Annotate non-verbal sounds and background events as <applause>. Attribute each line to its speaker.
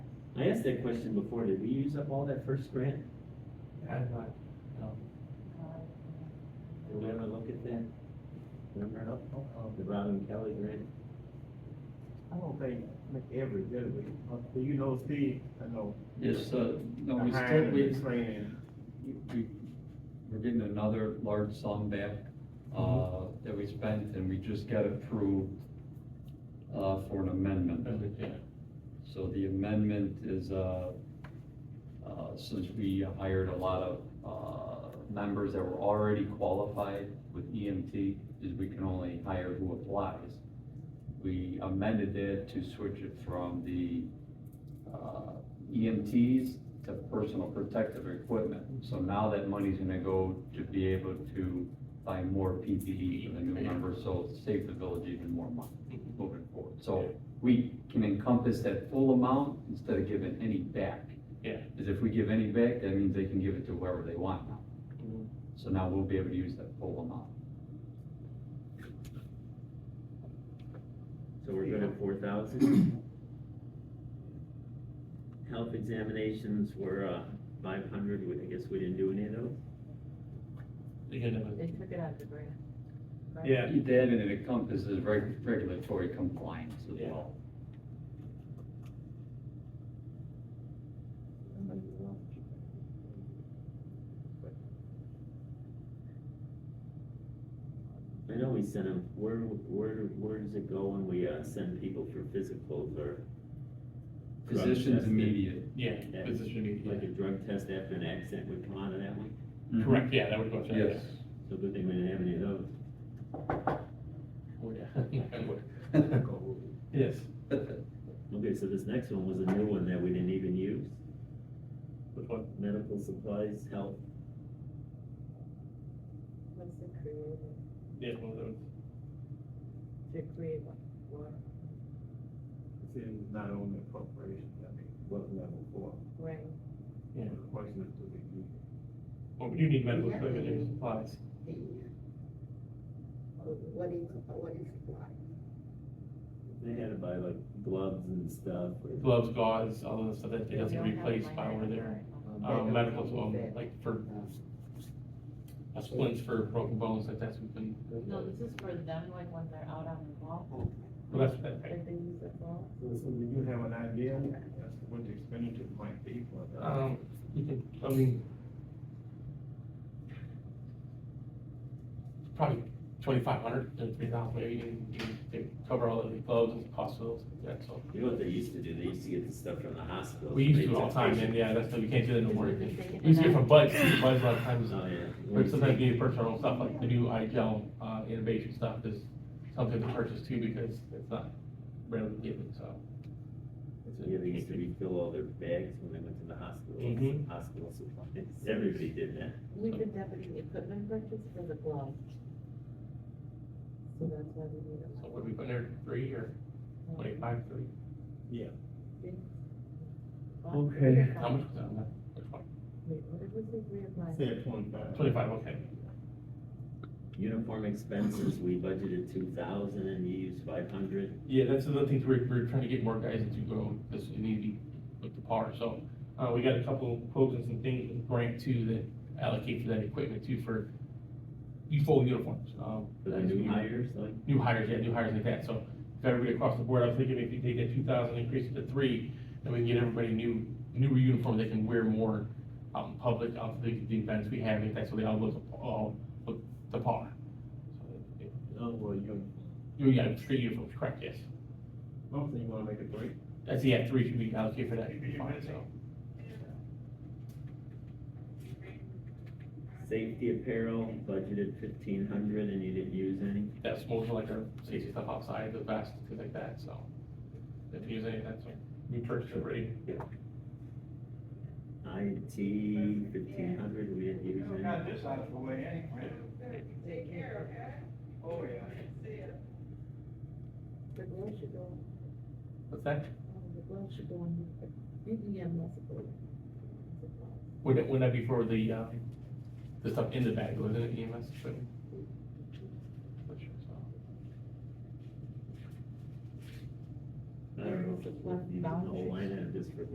Speaker 1: I asked that question before, did we use up all that first grant?
Speaker 2: I'm not,
Speaker 3: Um,
Speaker 1: No. Did we ever look at that? Remember, oh, the Brown and Kelly grant?
Speaker 2: I don't think every, did we? Uh, Do you know, Steve, I know.
Speaker 4: Yes, uh, no, we
Speaker 2: behind
Speaker 4: still, we,
Speaker 2: the Training,
Speaker 4: we, we're getting another large sum back, uh, that we spent, and we just got approved, uh, for an amendment. So the amendment is, uh, uh, since we hired a lot of, uh, members that were already qualified with EMT, is we can only hire who applies. We amended it to switch it from the, uh, EMTs to personal protective equipment. So now that money's gonna go to be able to buy more PPE for the new members, so save the village even more money moving forward. So we can encompass that full amount instead of giving any back.
Speaker 3: Yeah.
Speaker 4: Because if we give any back, that means they can give it to whoever they want now.
Speaker 1: Mhm.
Speaker 4: So now we'll be able to use that full amount.
Speaker 1: So we're good at four thousand? Health examinations were, uh, five hundred, I guess we didn't do any of those?
Speaker 5: They took it out of the grant. right?
Speaker 3: Yeah,
Speaker 4: That and it encompasses reg- regulatory compliance as
Speaker 3: Yeah.
Speaker 4: well.
Speaker 1: I know we sent them, where, where, where does it go when we, uh, send people for physicals or? drug
Speaker 4: Physicians
Speaker 1: testing?
Speaker 4: immediate.
Speaker 3: yeah,
Speaker 1: Yeah.
Speaker 3: physician
Speaker 1: Like
Speaker 3: immediate.
Speaker 1: a drug test after an accident would come out of that one,
Speaker 3: Correct, yeah, that would go.
Speaker 4: Mm-hmm. Yes. <laughs>
Speaker 1: so good thing we didn't have any of those.
Speaker 3: <laughs> Yes.
Speaker 4: <laughs>
Speaker 1: Okay, so this next one was a new one that we didn't even use,
Speaker 3: Which one?
Speaker 1: medical supplies, health,
Speaker 5: What's the creative,
Speaker 3: Yeah, one of those.
Speaker 5: the creative one,
Speaker 2: it's in not on the appropriation, I mean, what level four?
Speaker 5: right?
Speaker 3: Yeah.
Speaker 2: The question is, do they need?
Speaker 3: Well, we do need medical
Speaker 5: Yeah.
Speaker 3: equipment and supplies.
Speaker 5: The, what is, what is why?
Speaker 1: they had to buy like gloves and stuff, or
Speaker 3: Gloves, gauze, all of the stuff that they have to replace while we're there. Um, medical as well, like for uh, splints for broken bones, like that's what we,
Speaker 5: No, this is for them, like when they're out on the ball,
Speaker 3: well, that's, that, right.
Speaker 5: that they use the ball.
Speaker 2: So, so do you have an idea as to what the expenditure might be for that?
Speaker 3: Um, you can, I mean. Probably twenty-five hundred to three thousand, maybe, you, you, they cover all of the gloves and cost of those, yeah, so.
Speaker 1: you know what they used to do, they used to get the stuff from the hospital.
Speaker 3: We used
Speaker 1: They
Speaker 3: to all the
Speaker 1: took
Speaker 3: time,
Speaker 1: pictures.
Speaker 3: and yeah, that's, we can't do that no more.
Speaker 5: Just
Speaker 3: We used to get from Bud's, Bud's a lot of times,
Speaker 1: Oh,
Speaker 3: uh,
Speaker 1: yeah.
Speaker 3: or sometimes we purchase our own stuff, like the new eye gel, uh, innovation stuff is something to purchase too, because it's not readily given, so.
Speaker 1: Yeah, they used to refill all their bags when they went to the hospital,
Speaker 3: Mhm.
Speaker 1: hospital supplies, everybody did that.
Speaker 5: We did that with the equipment purchase for the gloves. So that's why we need
Speaker 3: So
Speaker 5: a.
Speaker 3: what do we put in there, three or twenty-five, three?
Speaker 1: Okay.
Speaker 3: How much was that on that? Which one?
Speaker 5: Wait, what was the reapply?
Speaker 2: Said twenty-five.
Speaker 3: Twenty-five, okay.
Speaker 1: Uniform expenses, we budgeted two thousand and you used five hundred.
Speaker 3: Yeah, that's another thing, we're, we're trying to get more guys into grow, because you need to be with the par, so, uh, we got a couple quotes and some things with grant too that allocate for that equipment too for you full uniforms, um.
Speaker 1: For the new hires, like,
Speaker 3: New hires, yeah, new hires like that, so if everybody across the board, I was thinking if you take that two thousand, increase it to three, then we can get everybody new, newer uniform, they can wear more out in public, out to the, the events we have, and that's so they all look, all look the par. So,
Speaker 2: Oh, well, you,
Speaker 3: You got three uniforms, correct, yes.
Speaker 2: mostly you wanna make a break?
Speaker 3: That's, yeah, three should be allocated for that, should be fine, so.
Speaker 1: safety apparel, budgeted fifteen hundred and you didn't use any.
Speaker 3: That's more for like our safety stuff outside, the vest, things like that, so. If you use any of that, so we purchased already.
Speaker 1: IT, fifteen hundred, we didn't use any.
Speaker 2: this out of the way anyway.
Speaker 5: Take care, okay?
Speaker 2: Oh, yeah.
Speaker 5: The gloves should go,
Speaker 3: What's that?
Speaker 5: um, the gloves should go on, BBM must go.
Speaker 3: Would it, wouldn't that be for the, um, the stuff in the bag, wasn't it E EMS? But- Not sure, so.
Speaker 1: I don't know if it's worth using the whole line item just for